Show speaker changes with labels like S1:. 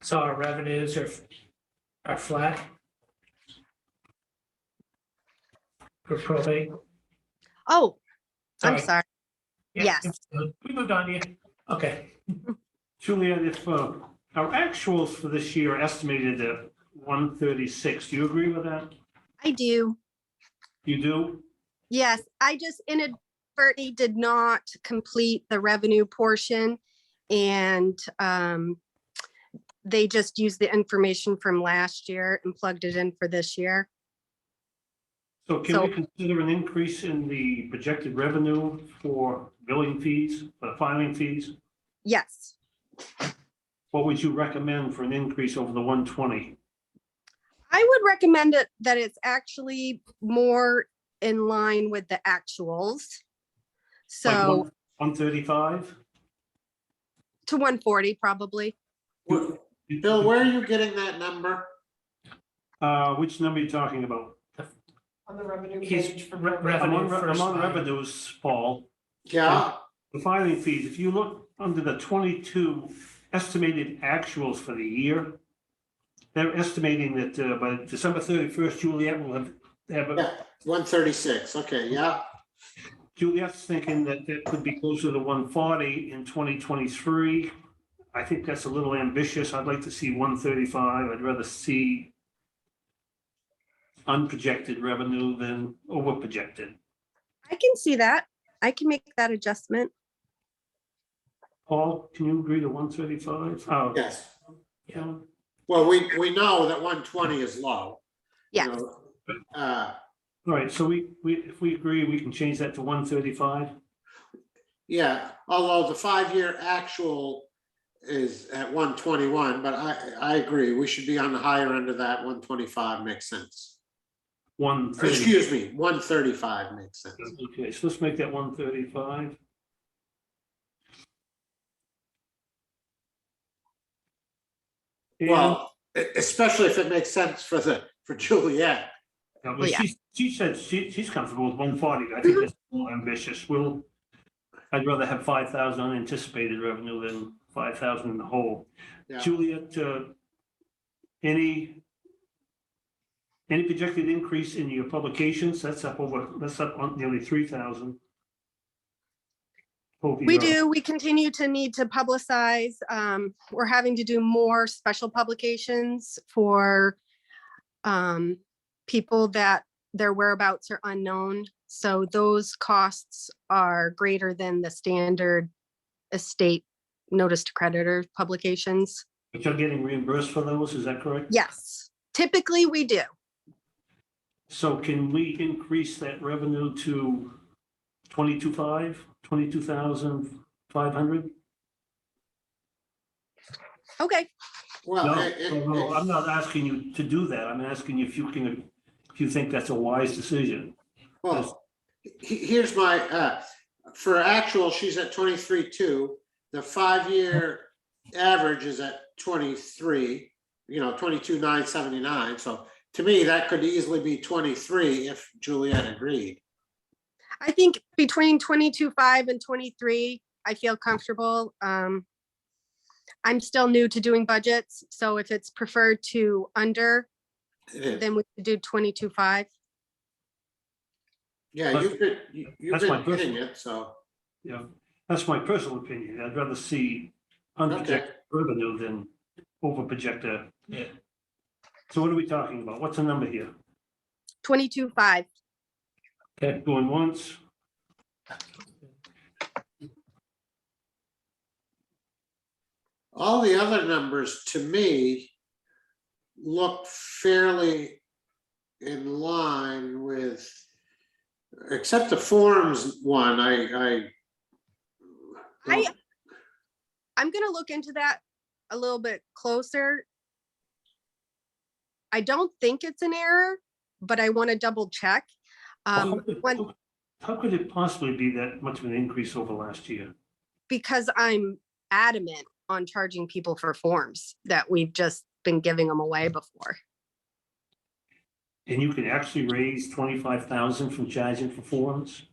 S1: So our revenues are, are flat. For probate.
S2: Oh, I'm
S1: Sorry.
S2: sorry.
S1: Yeah,
S2: Yes.
S1: We moved on to you. Okay,
S3: Julianne, if uh, our actuals for this year are estimated at one thirty-six, do you agree with that?
S2: I do.
S3: You do?
S2: Yes, I just inadvertently did not complete the revenue portion. And um, they just used the information from last year and plugged it in for this year.
S3: So can we consider an increase in the projected revenue for billing fees, for filing fees?
S2: Yes,
S3: What would you recommend for an increase over the one twenty?
S2: I would recommend it that it's actually more in line with the actuals. So
S3: One thirty-five?
S2: to 140 probably.
S4: Wh- Bill, where are you getting that number?
S3: Uh, which number are you talking about?
S5: On the revenue
S1: he's
S5: page.
S1: re-
S5: for
S3: I'm
S1: revenue
S3: on, re-
S1: first.
S3: I'm on
S1: line.
S3: revenues, Paul.
S4: Yeah,
S3: The filing fees, if you look under the twenty-two estimated actuals for the year, they're estimating that uh, by December thirty-first, Juliet will have, have,
S4: one thirty-six, okay, yeah,
S3: Juliet's thinking that that could be closer to one forty in twenty twenty-three. I think that's a little ambitious. I'd like to see one thirty-five. I'd rather see unprojected revenue than overprojected.
S2: I can see that. I can make that adjustment.
S3: Paul, can you agree to one thirty-five? Oh,
S4: yes.
S3: yeah.
S4: Well, we, we know that one twenty is low. you
S2: Yes,
S4: know. Uh,
S3: All right, so we, we, if we agree, we can change that to one thirty-five?
S4: yeah, although the five-year actual is at one twenty-one, but I, I agree, we should be on the higher end of that, one twenty-five makes sense.
S3: One
S4: Or,
S3: thirty,
S4: Excuse me, one thirty-five makes sense.
S3: okay, so let's make that one thirty-five.
S4: Well, e- especially if it makes sense for the, for Juliet.
S2: Well, yeah. Mm-hmm.
S3: she, uh, she said she, she's comfortable with one forty, I think that's more ambitious, we'll, I'd rather have five thousand unanticipated revenue than five thousand in the hole.
S4: Yeah.
S3: Juliet, uh, any, any projected increase in your publications, that's up over, that's up on nearly three thousand.
S2: we do. We continue to need to publicize. um, We're having to do more special publications for um, people that their whereabouts are unknown. So those costs are greater than the standard estate notice to creditor publications.
S3: But you're getting reimbursed for those, is that correct?
S2: Yes, typically we do.
S3: So can we increase that revenue to twenty-two five, twenty-two thousand five hundred?
S2: Okay.
S4: Well,
S3: No,
S4: it- it-
S3: no, no, I'm not asking you to do that. I'm asking you if you can, if you think that's a wise decision.
S4: Well, he- here's my, uh, for actual, she's at twenty-three, two. The five-year average is at twenty-three, you know, twenty-two, nine, seventy-nine. So to me, that could easily be twenty-three if Juliet agreed.
S2: I think between twenty-two, five and twenty-three, I feel comfortable. Um, I'm still new to doing budgets, so if it's preferred to under,
S4: It is.
S2: then we could do twenty-two, five.
S4: Yeah, you've been, you- you've
S3: That's my
S4: been hitting
S3: personal-
S4: it, so,
S3: You know, that's my personal opinion. I'd rather see
S4: okay.
S3: unprojected revenue than overprojected.
S1: Yeah.
S3: So what are we talking about? What's the number here?
S2: Twenty-two, five.
S3: Okay, going once.
S4: All the other numbers to me look fairly in line with, except the forms one, I, I.
S2: I- I'm gonna look into that a little bit closer. I don't think it's an error, but I want to double check.
S3: Well,
S2: Um,
S3: how could-
S2: one,
S3: how- How could it possibly be that much of an increase over last year?
S2: because I'm adamant on charging people for forms that we've just been giving them away before.
S3: And you can actually raise twenty-five thousand from charging for forms?